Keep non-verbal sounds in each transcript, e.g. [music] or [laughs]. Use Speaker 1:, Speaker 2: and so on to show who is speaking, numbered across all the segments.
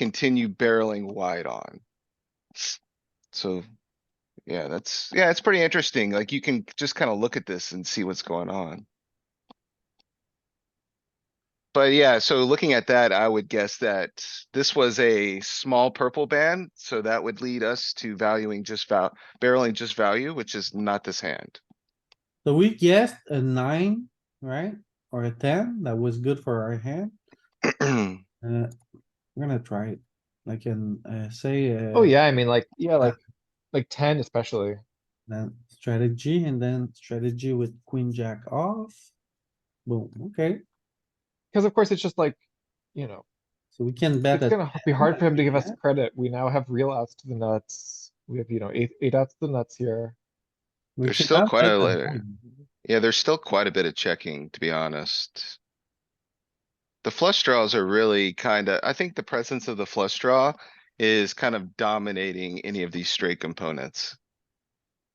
Speaker 1: continue barreling wide on. So, yeah, that's, yeah, it's pretty interesting. Like you can just kind of look at this and see what's going on. But yeah, so looking at that, I would guess that this was a small purple band, so that would lead us to valuing just val, barreling just value, which is not this hand. [clears throat]
Speaker 2: So we guessed a nine, right? Or a ten, that was good for our hand. Uh, we're gonna try it. I can, uh, say, uh.
Speaker 3: Oh, yeah, I mean, like, yeah, like, like ten especially.
Speaker 2: Then strategy and then strategy with queen jack off. Boom, okay,
Speaker 3: Because of course, it's just like, you know,
Speaker 2: so we can bet
Speaker 3: it's
Speaker 2: that,
Speaker 3: gonna be hard for him to give us
Speaker 4: [laughs]
Speaker 2: yeah.
Speaker 3: credit. We now have real outs to the nuts. We have, you know, eight, eight outs to the nuts here.
Speaker 2: we
Speaker 1: There's
Speaker 2: should
Speaker 1: still
Speaker 2: not
Speaker 1: quite
Speaker 2: bet
Speaker 1: a
Speaker 2: the
Speaker 1: layer.
Speaker 2: nine.
Speaker 1: Yeah, there's still quite a bit of checking, to be honest. The flush draws are really kinda, I think the presence of the flush draw is kind of dominating any of these straight components.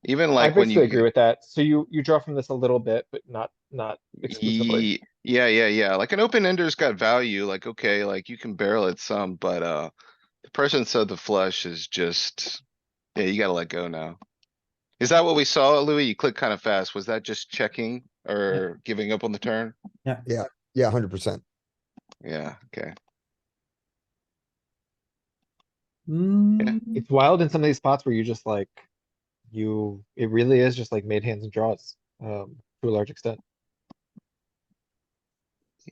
Speaker 1: Even
Speaker 3: I
Speaker 1: like when you.
Speaker 3: basically agree with that. So you, you draw from this a little bit, but not, not exclusively.
Speaker 1: Ye- Yeah, yeah, yeah. Like an open ender's got value, like, okay, like you can barrel it some, but, uh, the presence of the flush is just, yeah, you gotta let go now. Is that what we saw, Louis? You clicked kind of fast. Was that just checking or giving up on the turn?
Speaker 2: Yeah.
Speaker 5: Yeah. Yeah, hundred percent.
Speaker 1: Yeah, okay.
Speaker 2: Hmm, Mm,
Speaker 3: It's wild in some of these spots where you just like, you, it really is just like made hands and draws, um, to a large extent.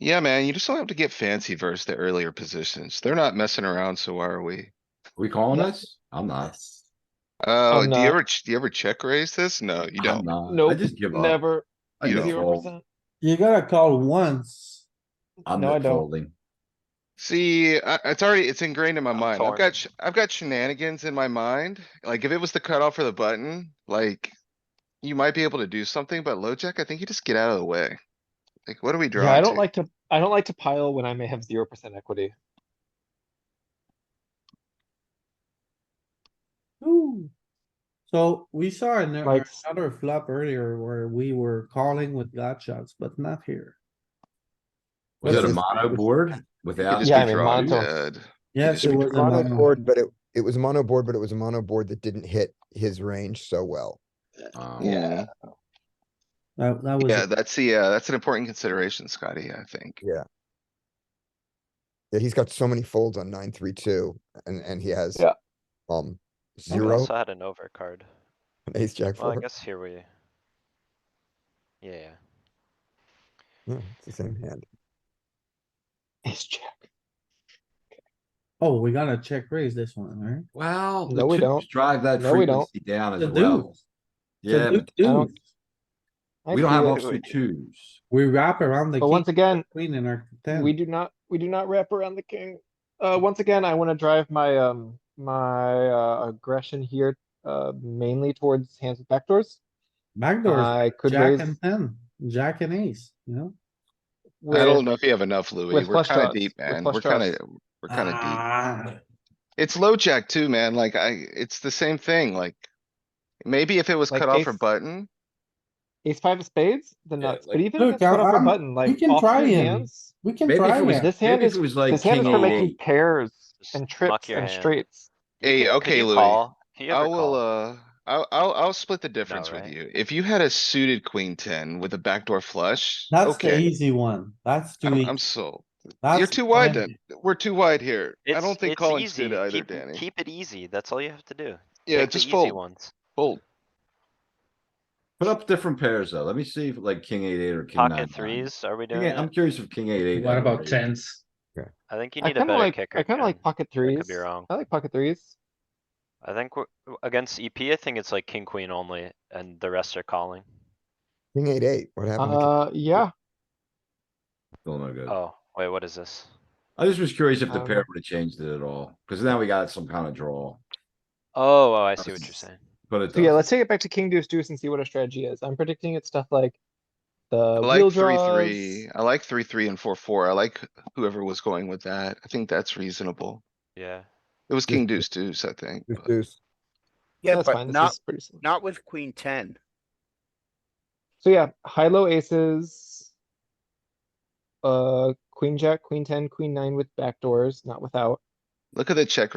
Speaker 1: Yeah, man, you just don't have to get fancy versus the earlier positions. They're not messing around, so why are we?
Speaker 4: We calling this? I'm not.
Speaker 1: Uh, do
Speaker 3: not-
Speaker 1: you ever, ch- do you ever check raise this? No, you don't.
Speaker 4: I'm not. Uh, I
Speaker 3: Nope,
Speaker 4: just give up.
Speaker 3: never,
Speaker 4: I
Speaker 1: you
Speaker 4: just
Speaker 1: don't
Speaker 3: zero
Speaker 4: fold.
Speaker 3: percent.
Speaker 2: you gotta call once.
Speaker 4: I'm
Speaker 3: No, I
Speaker 4: not
Speaker 3: don't.
Speaker 4: folding.
Speaker 1: See, I, it's already, it's ingrained in my
Speaker 3: I'm
Speaker 1: mind. I've
Speaker 3: torn.
Speaker 1: got, sh- I've got shenanigans in my mind. Like if it was the cutoff for the button, like. You might be able to do something, but low jack, I think you just get out of the way. Like, what are we drawing?
Speaker 3: Yeah, I don't
Speaker 1: to?
Speaker 3: like to, I don't like to pile when I may have zero percent equity. [laughs]
Speaker 2: Ooh. So we saw an-
Speaker 3: Like-
Speaker 2: another flop earlier where we were calling with gut shots, but not here.
Speaker 4: Was it
Speaker 2: Let's
Speaker 4: a
Speaker 2: just-
Speaker 4: mono board
Speaker 1: You could
Speaker 4: without?
Speaker 1: just
Speaker 3: Yeah,
Speaker 1: be
Speaker 3: I mean,
Speaker 1: drawing
Speaker 3: monotone.
Speaker 1: dead.
Speaker 2: Yes,
Speaker 1: just be
Speaker 2: it was. a
Speaker 3: drawing.
Speaker 2: mono.
Speaker 3: Mono
Speaker 5: Board, but it, it was a mono board, but it was a mono board that didn't hit his range so well.
Speaker 4: Um,
Speaker 1: Yeah,
Speaker 2: That, that was.
Speaker 1: yeah,
Speaker 2: it.
Speaker 1: that's the, uh, that's an important consideration, Scotty, I think.
Speaker 5: Yeah, he's got so many folds on nine, three, two, and, and he has.
Speaker 3: Yeah.
Speaker 5: Um,
Speaker 6: We
Speaker 5: zero,
Speaker 6: Also had an overcard.
Speaker 5: and ace, jack,
Speaker 6: Well, I
Speaker 5: four.
Speaker 6: guess here we. Yeah,
Speaker 5: Yeah, It's the same hand.
Speaker 3: Ace jack.
Speaker 2: Oh, we gotta check raise this one, right?
Speaker 4: Well,
Speaker 3: No, we
Speaker 4: the
Speaker 3: don't.
Speaker 4: twos drive that
Speaker 3: No, we don't.
Speaker 4: frequency down
Speaker 2: The
Speaker 4: as well.
Speaker 2: deuce. So
Speaker 4: Yeah,
Speaker 2: deuce-
Speaker 4: but
Speaker 3: I don't-
Speaker 2: deuce,
Speaker 3: I
Speaker 4: we don't have
Speaker 3: feel-
Speaker 4: offsuit twos.
Speaker 2: We wrap around the
Speaker 3: But once
Speaker 2: king,
Speaker 3: again,
Speaker 2: queen and our
Speaker 3: we
Speaker 2: ten.
Speaker 3: do not, we do not wrap around the king. Uh, once again, I wanna drive my, um, my, uh, aggression here, uh, mainly towards hands with backdoors.
Speaker 2: Backdoors,
Speaker 3: I uh, could
Speaker 2: jack
Speaker 3: raise
Speaker 2: and ten, jack and ace, you know?
Speaker 1: I don't
Speaker 3: with,
Speaker 1: know if you have enough, Louis.
Speaker 3: with
Speaker 1: We're
Speaker 3: flush
Speaker 1: kinda
Speaker 3: draws,
Speaker 1: deep,
Speaker 3: with
Speaker 1: man.
Speaker 3: flush
Speaker 1: We're kinda,
Speaker 3: draws.
Speaker 1: we're kinda deep.
Speaker 2: Ah,
Speaker 1: It's low jack too, man. Like I, it's the same thing, like. Maybe if it was
Speaker 3: Like
Speaker 1: cut off or
Speaker 3: ace-
Speaker 1: button,
Speaker 3: ace five of spades, the
Speaker 4: Yeah,
Speaker 3: nuts,
Speaker 4: like-
Speaker 3: but even
Speaker 2: Look,
Speaker 3: if it's cut off a
Speaker 2: I'm-
Speaker 3: button, like
Speaker 2: can try
Speaker 3: offsuit
Speaker 2: him.
Speaker 3: hands.
Speaker 2: We can
Speaker 4: Maybe
Speaker 2: try
Speaker 4: if it was,
Speaker 2: it.
Speaker 3: This hand
Speaker 4: maybe if
Speaker 3: is-
Speaker 4: it was like
Speaker 3: This hand
Speaker 4: king
Speaker 3: is for
Speaker 4: eight.
Speaker 3: making pairs
Speaker 6: Just
Speaker 3: and
Speaker 6: muck
Speaker 3: trips
Speaker 6: your
Speaker 3: and
Speaker 6: hand.
Speaker 3: straights.
Speaker 1: hey,
Speaker 6: Can- can
Speaker 1: okay,
Speaker 6: you
Speaker 1: Louis,
Speaker 6: call? Can you
Speaker 1: I
Speaker 6: ever
Speaker 1: will,
Speaker 6: call?
Speaker 1: uh, I'll, I'll, I'll split the difference with
Speaker 6: right?
Speaker 1: you. If you had a suited queen ten with a backdoor flush,
Speaker 2: That's the
Speaker 1: okay,
Speaker 2: easy one. That's too
Speaker 1: I'm, I'm
Speaker 2: easy.
Speaker 1: sold. You're
Speaker 2: That's
Speaker 1: too
Speaker 2: the
Speaker 1: wide
Speaker 2: one.
Speaker 1: then. We're too wide here. I
Speaker 6: It's-
Speaker 1: don't think
Speaker 6: it's
Speaker 1: calling
Speaker 6: easy.
Speaker 1: suited either,
Speaker 6: Keep-
Speaker 1: Danny.
Speaker 6: Keep it easy. That's all you have to do.
Speaker 1: Yeah,
Speaker 6: Pick the
Speaker 1: just
Speaker 6: easy
Speaker 1: fold,
Speaker 6: Ones.
Speaker 1: fold.
Speaker 4: Put up different pairs though. Let me see if like king eight eight or king nine.
Speaker 6: Pocket
Speaker 4: nine.
Speaker 6: threes, are we doing
Speaker 4: Yeah, I'm
Speaker 6: it?
Speaker 4: curious if king eight eight.
Speaker 7: What about
Speaker 4: raised.
Speaker 7: tens?
Speaker 6: I think you
Speaker 3: I
Speaker 6: need a
Speaker 3: kinda
Speaker 6: better
Speaker 3: like,
Speaker 6: kicker.
Speaker 3: I kinda like
Speaker 6: Ken.
Speaker 3: pocket
Speaker 6: I
Speaker 3: threes.
Speaker 6: could be wrong.
Speaker 3: I like pocket threes.
Speaker 6: I think we're, against EP, I think it's like king, queen only and the rest are calling.
Speaker 5: King eight, eight, what happened? to king-
Speaker 3: Uh, yeah,
Speaker 4: Still no good.
Speaker 6: Oh, wait, what is this?
Speaker 4: I just was curious if the
Speaker 3: Um,
Speaker 4: pair would have changed it at all, because now we got some kind of draw,
Speaker 6: Oh, oh, I see what you're saying.
Speaker 4: but it
Speaker 3: so yeah,
Speaker 4: does.
Speaker 3: let's take it back to king deuce deuce and see what our strategy is. I'm predicting it's stuff like
Speaker 1: I
Speaker 3: the wheel
Speaker 1: like three,
Speaker 3: draws.
Speaker 1: three. I like three, three and four, four. I like whoever was going with that. I think that's reasonable.
Speaker 6: Yeah.
Speaker 1: It was
Speaker 5: Yeah.
Speaker 1: king deuce deuce, I think.
Speaker 5: Deuce,
Speaker 1: but-
Speaker 5: deuce.
Speaker 8: Yeah,
Speaker 3: That's
Speaker 8: but
Speaker 3: fine, this
Speaker 8: not,
Speaker 3: is pretty simple.
Speaker 8: not with queen ten.
Speaker 3: So yeah, high, low aces. Uh, queen, jack, queen ten, queen nine with backdoors, not without.
Speaker 1: Look at the check